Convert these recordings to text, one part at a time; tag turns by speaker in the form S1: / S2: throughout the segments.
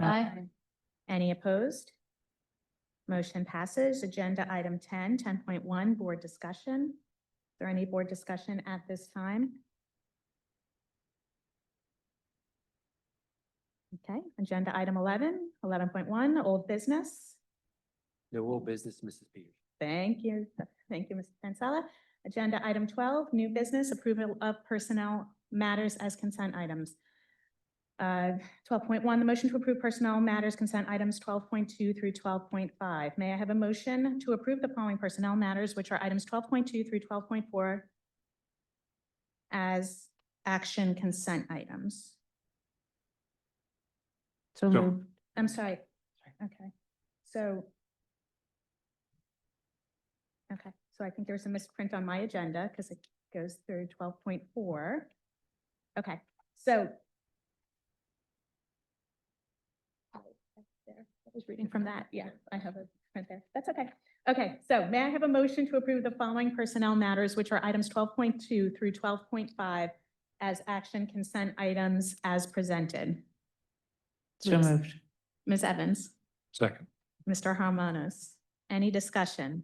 S1: Aye.
S2: Any opposed? Motion passes. Agenda item 10, 10.1. board discussion. Is there any board discussion at this time? Okay, agenda item 11, 11.1. old business.
S3: No old business, Mrs. Peters.
S2: Thank you. Thank you, Mr. Pensella. Agenda item twelve, new business approval of personnel matters as consent items. Uh, twelve point one, the motion to approve personnel matters consent items twelve point two through twelve point five. May I have a motion to approve the following personnel matters, which are items twelve point two through twelve point four as action consent items?
S1: So
S4: So-
S1: moved.
S2: I'm sorry. Okay, so. Okay, so I think there was a misprint on my agenda because it goes through twelve point four. Okay, so. Oh, that's there. I was reading from that. Yeah, I have a print there. That's okay. Okay, so may I have a motion to approve the following personnel matters, which are items twelve point two through twelve point five as action consent items as presented?
S1: So
S2: Yes.
S1: moved.
S2: Ms. Evans?
S4: Second.
S2: Mr. Harmonos, any discussion?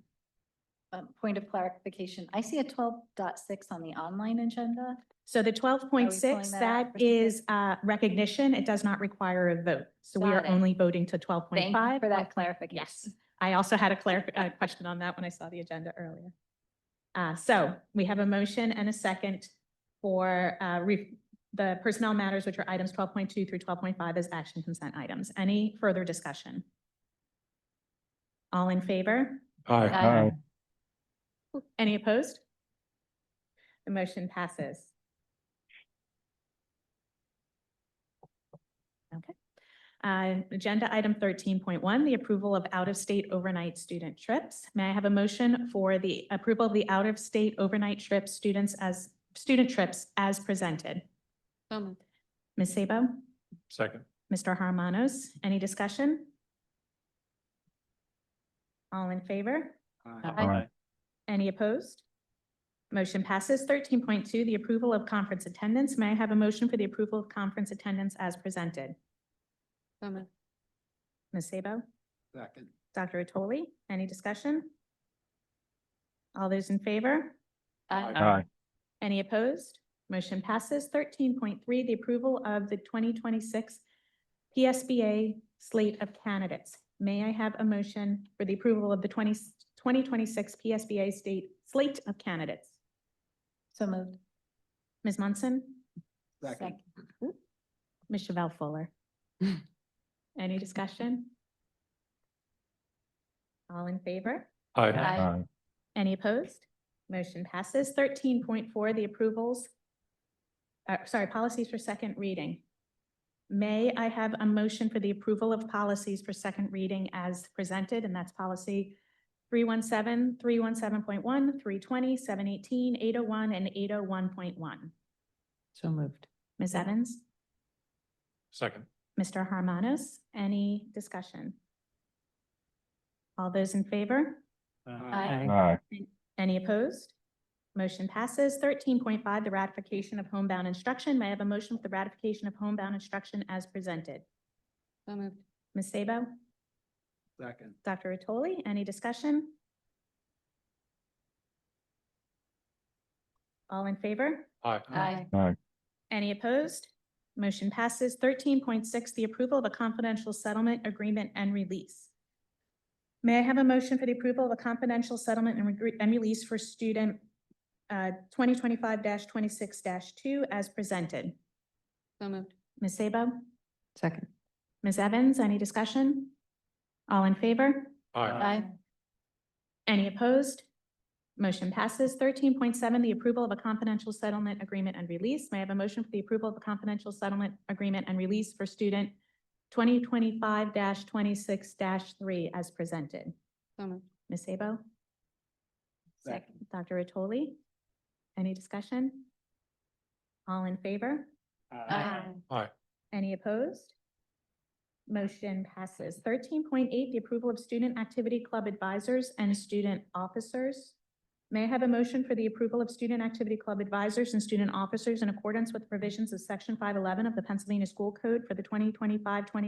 S5: Um, point of clarification, I see a 12.6 on the online agenda.
S2: So the twelve point six,
S5: pulling that
S2: that
S5: out for
S2: is uh recognition. It does not require a vote. So we
S5: Got
S2: are
S5: it.
S2: only voting to twelve point
S5: Thank you
S2: five.
S5: for that clarification.
S2: Yes. I also had a clar- a question on that when I saw the agenda earlier. Uh, so we have a motion and a second for uh re- the personnel matters, which are items twelve point two through twelve point five as action consent items. Any further discussion? All in favor?
S4: Aye.
S5: Aye.
S2: Any opposed? The motion passes. Okay. Uh, Agenda item thirteen point one, the approval of out-of-state overnight student trips. May I have a motion for the approval of the out-of-state overnight trip students as, student trips as presented?
S1: So moved.
S2: Ms. Sabo?
S4: Second.
S2: Mr. Harmonos, any discussion? All in favor?
S4: Aye.
S2: Any opposed? Motion passes. Thirteen point two, the approval of conference attendance. May I have a motion for the approval of conference attendance as presented?
S1: So moved.
S2: Ms. Sabo?
S3: Second.
S2: Dr. Otoli, any discussion? All those in favor?
S5: Aye.
S4: Aye.
S2: Any opposed? Motion passes. Thirteen point three, the approval of the twenty twenty-six PSBA slate of candidates. May I have a motion for the approval of the 20 2026 PSBA state slate of candidates?
S5: So moved.
S2: Ms. Munson?
S3: Second.
S2: Ms. Chevelle Fuller. Any discussion? All in favor?
S4: Aye.
S5: Aye.
S2: Any opposed? Motion passes. Thirteen point four, the approvals. uh, sorry, policies for second reading. May I have a motion for the approval of policies for second reading as presented, and that's policy 317, 317.1, 320, 718, 801, and eight oh one point one.
S1: So moved.
S2: Ms. Evans?
S4: Second.
S2: Mr. Harmonos, any discussion? All those in favor?
S5: Aye.
S2: Any opposed? Motion passes. Thirteen point five, the ratification of homebound instruction. May I have a motion for the ratification of homebound instruction as presented?
S1: So moved.
S2: Ms. Sabo?
S3: Second.
S2: Dr. Otoli, any discussion? All in favor?
S4: Aye.
S5: Aye.
S2: Any opposed? Motion passes. Thirteen point six, the approval of a confidential settlement agreement and release. May I have a motion for the approval of a confidential settlement and regre- and release for student uh, twenty twenty-five twenty-six two as presented?
S1: So moved.
S2: Ms. Sabo?
S1: Second.
S2: Ms. Evans, any discussion? All in favor?
S4: Aye.
S5: Aye.
S2: Any opposed? Motion passes. Thirteen point seven, the approval of a confidential settlement agreement and release. May I have a motion for the approval of a confidential settlement agreement and release for student twenty twenty-five twenty-six three as presented?
S1: So moved.
S2: Ms. Sabo?
S3: Second.
S2: Dr. Otoli? Any discussion? All in favor?
S5: Aye.
S2: Any opposed? Motion passes. Thirteen point eight, the approval of student activity club advisors and student officers. May I have a motion for the approval of student activity club advisors and student officers in accordance with provisions of section five eleven of the Pennsylvania School Code for the 2025-26